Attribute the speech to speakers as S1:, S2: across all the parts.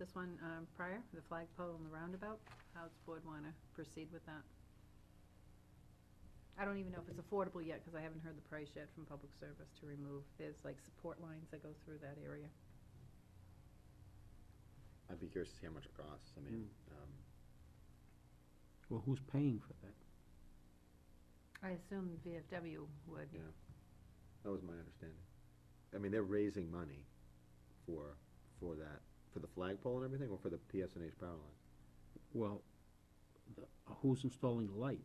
S1: This one um, prior, the flagpole and the roundabout, how's the board want to proceed with that? I don't even know if it's affordable yet, because I haven't heard the price yet from public service to remove. There's like support lines that go through that area.
S2: I'd be curious to see how much it costs, I mean, um,
S3: Well, who's paying for that?
S1: I assume VFW would.
S2: Yeah. that was my understanding. I mean, they're raising money for, for that, for the flagpole and everything, or for the PSNH power line,
S3: Well, the, uh, who's installing the light?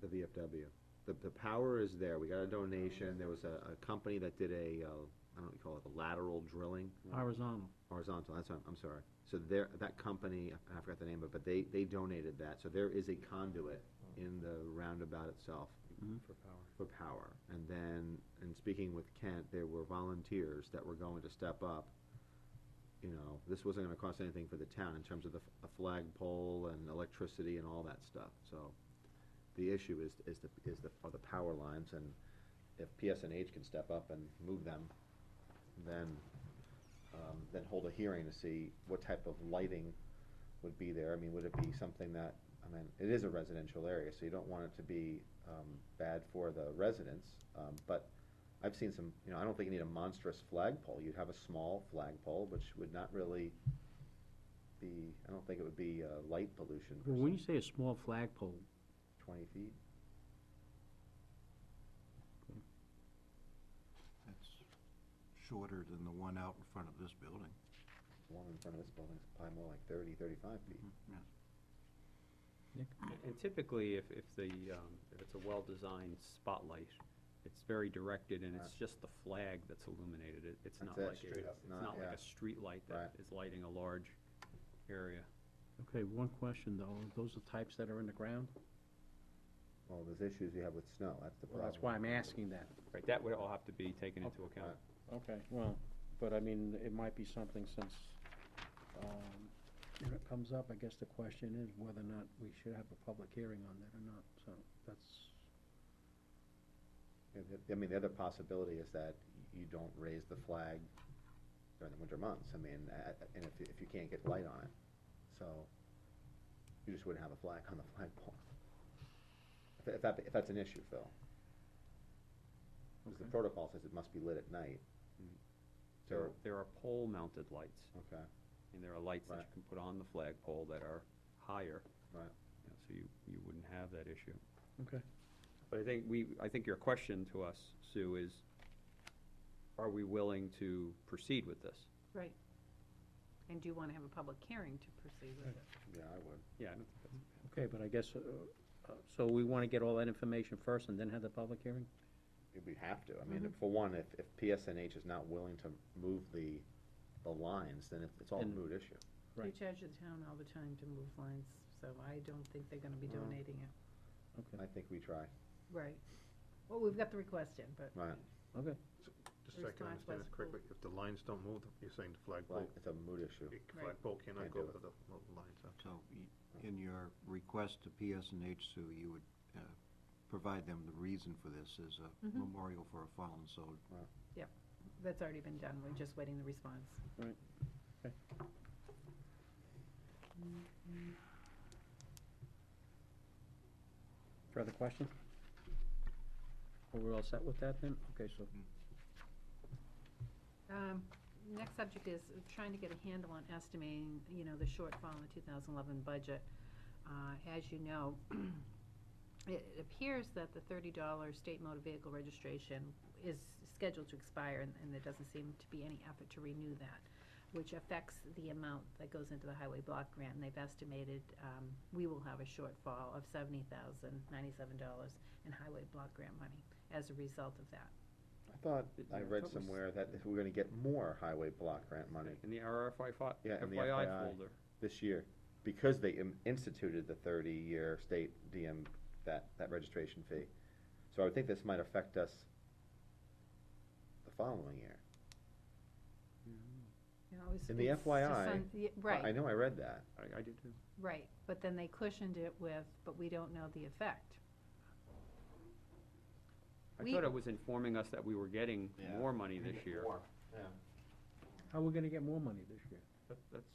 S2: the VFW. The, the power is there, we got a donation, there was a, a company that did a, uh, I don't know what you call it, a lateral drilling?
S3: Horizontal.
S2: Horizontal, that's, what I'm, I'm sorry. So there, that company, I forgot the name of it, but they, they donated that, so there is a conduit in the roundabout itself.
S4: for power.
S2: for power. And then, in speaking with Kent, there were volunteers that were going to step up. You know, this wasn't gonna cost anything for the town in terms of the, f- a flagpole and electricity and all that stuff, so. The issue is, is the, is the, are the power lines, and if PSNH can step up and move them, then, um, then hold a hearing to see what type of lighting would be there. I mean, would it be something that, I mean, it is a residential area, so you don't want it to be, um, bad for the residents. Um, but I've seen some, you know, I don't think you need a monstrous flagpole. You'd have a small flagpole, which would not really be, I don't think it would be, uh, light pollution
S3: Well,
S2: per
S3: when you
S2: se,
S3: say a small flagpole,
S2: twenty feet.
S4: That's shorter than the one out in front of this building.
S2: One in front of this building is probably more like thirty, thirty-five feet.
S3: Mm-hmm.
S4: Yes.
S5: And typically, if, if the, um, if it's a well-designed spotlight, it's very directed and it's just the flag that's illuminated. It, it's
S2: That's
S5: not
S2: it,
S5: like,
S2: straight
S5: a-
S2: up,
S5: it's
S2: not-
S5: not like
S2: yeah.
S5: a street light that
S2: Right.
S5: is lighting a large area.
S3: okay, one question though, those are types that are in the ground?
S2: Well, there's issues you have with snow, that's the
S3: Well,
S2: problem.
S3: that's why I'm asking that.
S5: Right, that would all have to be taken into account.
S3: Okay, well, but I mean, it might be something since, um, when it comes up, I guess the question is whether or not we should have a public hearing on that or not, so that's.
S2: And the- I mean, the other possibility is that you don't raise the flag during the winter months, I mean, a- a- and if, if you can't get light on it, so you just wouldn't have a flag on the flagpole. If that- If that, if that's an issue, Phil. Because the
S3: Okay. Mm-hmm.
S2: protocol says it must be lit at night.
S5: There,
S2: So,
S5: there are pole-mounted lights,
S2: okay,
S5: and there are lights that you
S2: Right.
S5: can put on the flagpole that are higher,
S2: right,
S5: you know, so you, you wouldn't have that issue.
S3: Okay.
S5: But I think we, I think your question to us, Sue, is, are we willing to proceed with this?
S1: Right. And do you want to have a public hearing to proceed with it?
S2: yeah, I would.
S5: Yeah, I don't think that's.
S3: Okay, but I guess, uh, uh, so we wanna get all that information first and then have the public hearing?
S2: If we have to, I mean, for one, if, if PSNH is not willing to move the, the lines, then it's all a
S3: And-
S2: moot issue.
S1: You
S3: Right.
S1: charge the town all the time to move lines, so I don't think they're going to be
S2: Well.
S1: donating it.
S3: Okay,
S2: I think we try,
S1: Right. Well, we've got the request in, but.
S2: right,
S3: okay,
S4: Just so I can
S1: Response
S4: understand
S1: was
S4: this correctly, if the lines don't move, you're saying the
S2: Flag-
S4: flagpole,
S2: it's a moot issue.
S4: the
S1: Right.
S4: flagpole cannot
S2: Can't
S4: go
S2: do it.
S4: over the lo- lines, huh?
S6: So y- in your request to PSNH, Sue, you would uh, provide them the reason for this is
S1: Mhm.
S6: a memorial for a fallen soldier.
S1: That's already been done, we're just waiting the response.
S3: Right. Okay. further questions? Are we all set with that then? Okay, so,
S1: Um, Next subject is trying to get a handle on estimating, you know, the shortfall in the 2011 budget. Uh, As you know, it it appears that the $30 state motor vehicle registration is scheduled to expire, and- and there doesn't seem to be any effort to renew that, which affects the amount that goes into the highway block grant. And they've estimated um, we will have a shortfall of $70,097 in highway block grant money as a result of that.
S2: I thought,
S5: It-
S2: I
S5: I
S2: read
S5: thought we s-
S2: somewhere that if we're gonna get more highway block grant money
S5: In the RFI fi-
S2: Yeah, in the
S5: FYI
S2: FYI.
S5: folder.
S2: this year, because they im- instituted the thirty-year state DM, that, that registration fee. So I would think this might affect us the following year.
S1: You know, it's-
S2: In the
S1: it's just
S2: FYI,
S1: un- yeah,
S2: I-
S1: Right.
S2: I know I read that.
S5: I, I did too.
S1: Right, but then they cushioned it with, but we don't know the effect.
S5: I
S1: We-
S5: thought it was informing us that we were getting
S2: Yeah.
S5: more money this year.
S3: how are we gonna get more money this year?
S5: That- That's